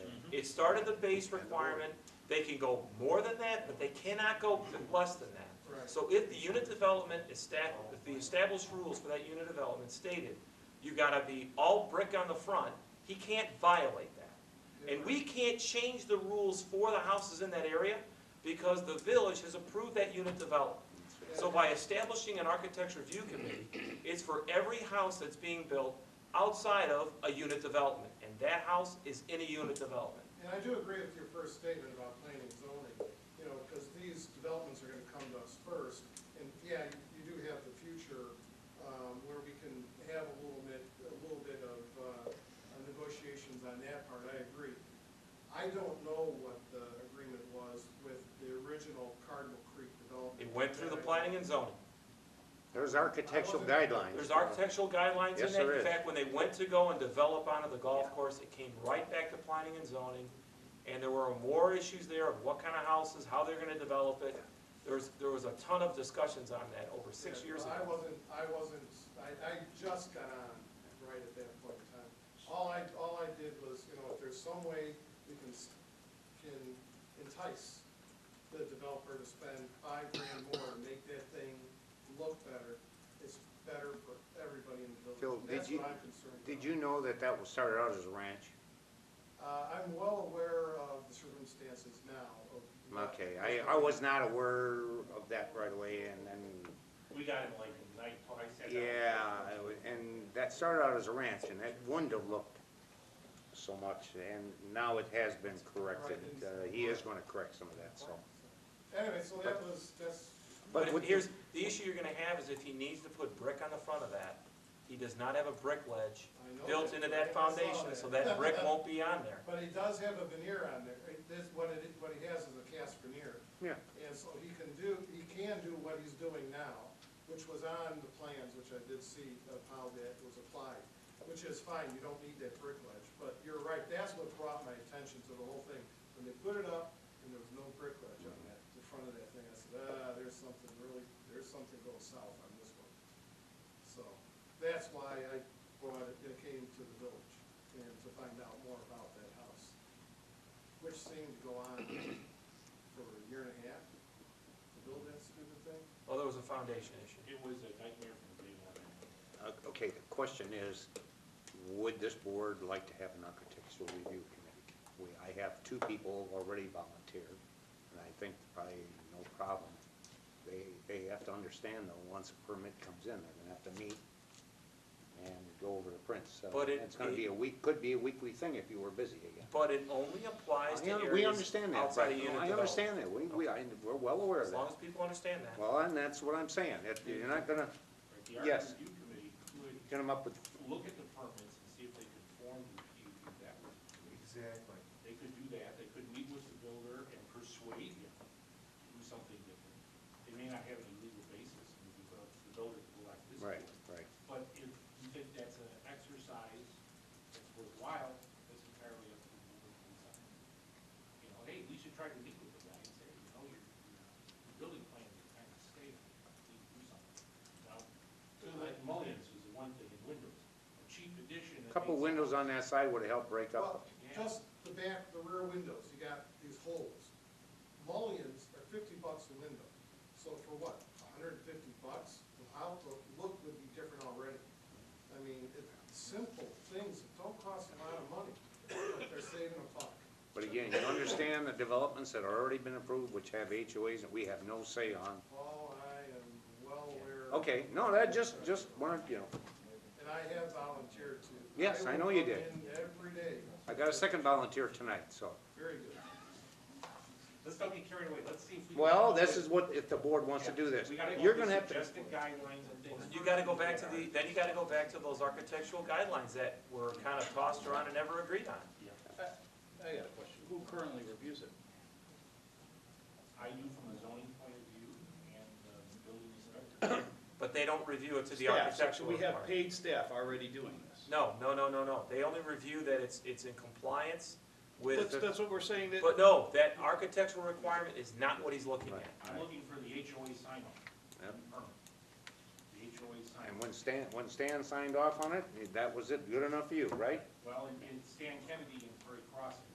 It started the base requirement, they can go more than that, but they cannot go less than that. Right. So if the unit development is stat, if the established rules for that unit development stated, you gotta be all brick on the front, he can't violate that. And we can't change the rules for the houses in that area because the village has approved that unit development. So by establishing an architecture review committee, it's for every house that's being built outside of a unit development. And that house is in a unit development. And I do agree with your first statement about planning and zoning, you know, because these developments are gonna come to us first. And yeah, you- you do have the future, um, where we can have a little bit, a little bit of, uh, uh, negotiations on that part, I agree. I don't know what the agreement was with the original Cardinal Creek development. It went through the planning and zoning. There's architectural guidelines. There's architectural guidelines in that. Yes, there In is. fact, when they went to go and develop onto the golf course, it came right back to planning and zoning. And there were more issues there of what kind of houses, how they're gonna develop it. There was, there was a ton of discussions on that over six Yeah, years well, ago. I wasn't, I wasn't, I, I just got on right at that point in time. All I, all I did was, you know, if there's some way we can, s- can entice the developer to spend five grand more and make that thing look better, it's better for everybody in the Phil, village. And did That's you- what I'm concerned about. Did you know that that was started out as a ranch? Uh, I'm well aware of the circumstances now of. what- Okay, I, I was not aware of that right away, and then, We got in like the night, I uh, said. yeah, it wa- and that started out as a ranch, and that wouldn't have looked so much, and now it has been corrected. Uh, He is gonna correct some of that, so. Anyway, so that was, that's. But But if- what- here's, the issue you're gonna have is if he needs to put brick on the front of that, he does not have a brick ledge I know built into that I saw foundation, so that brick won't be on there. But he does have a veneer on there, It- this, what it, what he has is a cast veneer. Yeah. And so he can do, he can do what he's doing now, which was on the plans, which I did see of how that was applied, which is fine, you don't need that brick ledge, but you're right, that's what brought my attention to the whole thing. When they put it up, and there was no brick ledge on that, the front of that thing, I said, ah, there's something really, there's something going south on this one. So, that's why I brought it, it came to the village, and to find out more about that house, which seemed to go on for a year and a half to build that stupid thing. Well, there was a foundation issue. It was a nightmare from day one. Uh, Okay, the question is, would this board like to have an architectural review committee? We, I have two people already volunteered, and I think probably no problem. They, they have to understand though, once a permit comes in, they're gonna have to meet and go over the prints. So But it- It's gonna be a week, could be a weekly thing if you were busy again. But it only applies to I un- areas We understand that, outside of right. unit I development. understand that, we, we, I- we're well aware of As long that. as people understand that. Well, and that's what I'm saying, It- you're not gonna, right? Yes. The art review committee get them up with, could look at the permits and see if they could form the PUD that was. Exactly. They could do that, they could meet with the builder and persuade him to do something different. They may not have any legal basis, and if the builder will like this. right, board. right. But if you think that's an exercise that's worthwhile, that's entirely up to the board to decide. You know, hey, we should try to meet with the guy and say, you know, your, your building plan is kind of stale, we need to do something. Now, like mullions is the one thing in windows, a cheap addition. that Couple makes- windows on that side would have helped break Well, up. just the back, the rear windows, you got these holes. Mullions are fifty bucks a window, so for what, hundred and fifty bucks? The outlook, look would be different already. I mean, it's simple things that don't cost a lot of money, but they're saving a buck. But again, you understand the developments that are already been approved, which have HOAs that we have no say on. Paul, Oh, I am well aware. of- Okay, no, that just, just wanted, you know, And I have volunteered to. Yes, I know you did. will come in Every day, I got a second volunteer tonight, so. very good. Let's not get carried away, let's see if we. can- Well, this is what, if the board wants to do this, We gotta go you're with gonna have to, Suggested guidelines and things. You gotta go back to the, then you gotta go back to those architectural guidelines that were kind of tossed around and never agreed on. I got a question. Who currently reviews it? I do from a zoning point of view and uh, building inspector. But they don't review it to the Staff, so architectural We have requirement. paid staff already doing this. No, no, no, no, no. They only review that it's, it's in compliance That's, with, that's what we're saying, that, but no, that architectural requirement is not what he's looking at. I'm looking for the HOA sign off. Yep. The HOA sign and off. when Stan, when Stan signed off on it, that was it, good enough for you, right? Well, in- in Stan Kennedy and Prairie Crossing,